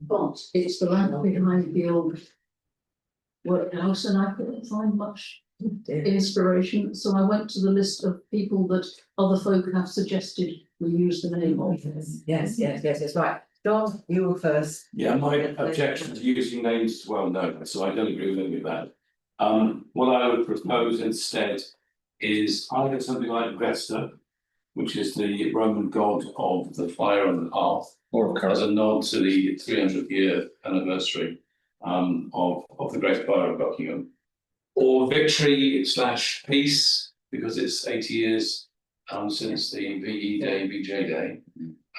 but it's the land behind the old workhouse and I couldn't find much inspiration, so I went to the list of people that other folk have suggested we use the name of. Yes, yes, yes, that's right. John, you were first. Yeah, my objection to using names is well known, so I don't agree with any of that. Um, what I would propose instead is either something like Vesta, which is the Roman god of the fire and the hearth, Or as a nod to the three hundredth year anniversary um, of of the Great Fire of Buckingham. Or victory slash peace, because it's eighty years um since the VE Day, VJ Day.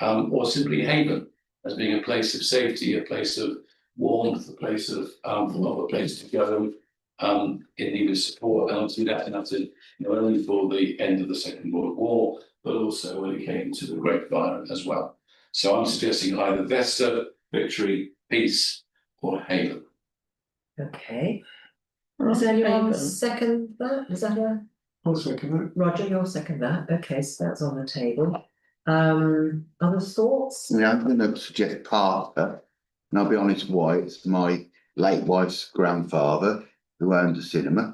Um, or simply haven as being a place of safety, a place of warmth, a place of um of a place to go. Um, in need of support, and obviously that's enough to, not only for the end of the Second World War, but also when it came to the Great Fire as well. So I'm suggesting either Vesta, Victory, Peace, or Haven. Okay. Does anyone anyone second that? Is that a? Roger, you'll second that. Okay, so that's on the table. Um, other thoughts? Yeah, I'm gonna suggest Carter, and I'll be honest why, it's my late wife's grandfather who owned the cinema.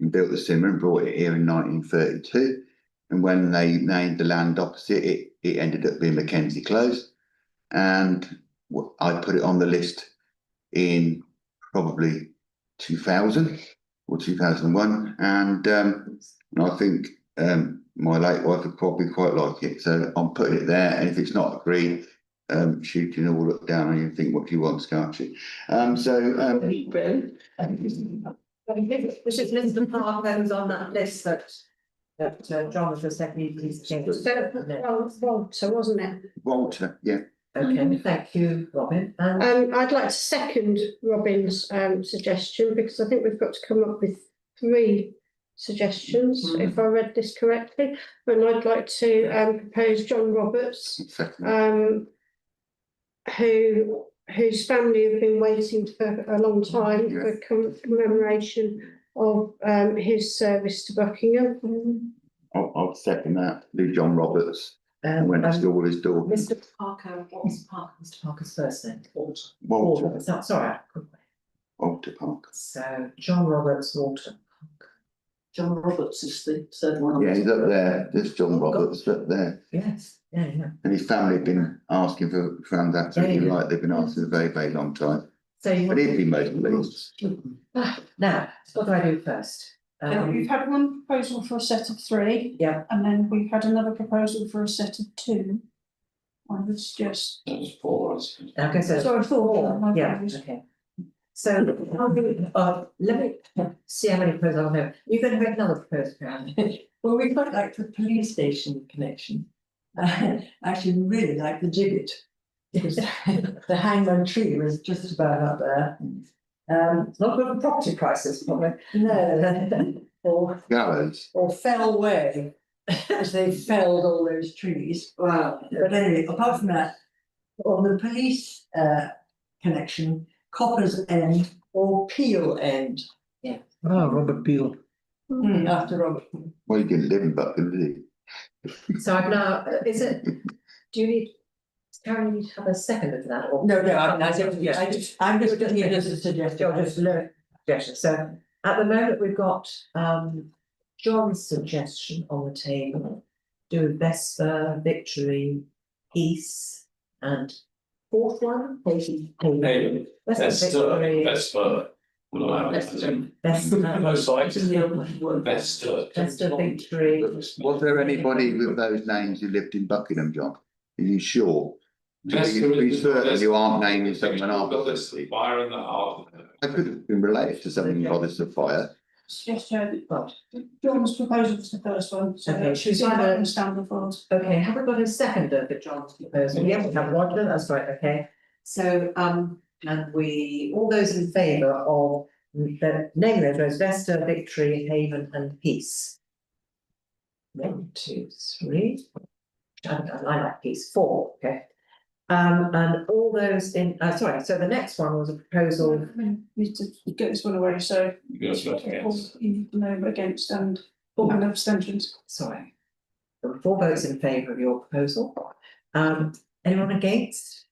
And built the cinema and brought it here in nineteen thirty-two, and when they named the land opposite, it, it ended up being Mackenzie Close. And wh- I put it on the list in probably two thousand or two thousand and one, and, um, and I think um, my late wife would probably quite like it, so I'm putting it there, and if it's not agreed, um, she can all look down and you think, what do you want, can't she? Um, so, um, Which is Lisbon Park owns on that list that. That uh, John was the second, please change. So, well, Oh, well, so wasn't it? Walter, yeah, Okay, thank you, Robin. And Um, I'd like to second Robin's um suggestion because I think we've got to come up with three suggestions, if I read this correctly. And I'd like to um propose John Roberts, second, um, who whose family have been waiting for a long time for com- commemoration of um his service to Buckingham. I'll, I'll second that, Lou John Roberts, and um, went to um, school with his daughter, Mr Parker, what's Parker, Mr Parker's first name? Walter, Walter, sorry, I couldn't- Walter Park. so John Roberts, Walter. Parker. John Roberts is the third one. on the Yeah, he's top. up there, there's Oh, John Roberts up there, Yes, yeah, yeah. and his family have been asking for, found that, so Yeah, yeah. like, they've been asking a very, very long time, So you but want, he'd be most pleased. now, what do I do first? Oh, Yeah, Um, We've had one proposal for a set of three. Yeah. And then we've had another proposal for a set of two. I would suggest, That was four, I suppose. I guess that's. sorry, four. my Yeah, apologies. okay. So, how many, uh, let me see how many proposals I have. You're gonna make another proposal, Karen. Well, we quite like the police station connection. Uh, actually, we really like the gibbet. because The hangman tree was just about up there. Um, Not good for property prices, probably. no, or, Gallows, or fell way, as they felled all those trees. Wow. But anyway, apart from that, on the police, uh, connection, Copper's End or Peel End. Hmm, Ah, Robert Peel. After Robert, well, he didn't live in Buckingham, did he? So I've now, is it, do you need, Karen, you need to have a second of that or? no, no, I, I don't, I just, I'm just giving it as a suggestion. You'll just learn suggestions. So at the moment, we've got um John's suggestion on the table. Do Vesper, Victory, Peace and fourth one, Haven. Haven. Vesta, Victory, Vespa, well, I have Vesta. Vesper, No sight, Is the other one. Vesta. Vesta, Victory. Was there anybody with those names who lived in Buckingham, John? Are you sure? Vesta You- you is- certainly you aren't naming Vesta- someone after. The Fire and the hearth. I could have been related to something like this of fire. Suggest, uh, John's proposal was the first one, so Okay, that she's she's not either- going to stand before us. Okay, have we got a second of the John's proposal? Yeah, we have Roger, that's right, okay. So, um, and we, all those in favour of the name of those Vesta, Victory, Haven and Peace? One, two, three. I, I like peace, four, okay. Um, and all those in, uh, sorry, so the next one was a proposal, Need to get this one away, so. You can also vote against. You know, against and, Oh. and abstentions. sorry. There were Four votes in favour of your proposal. Um, anyone against?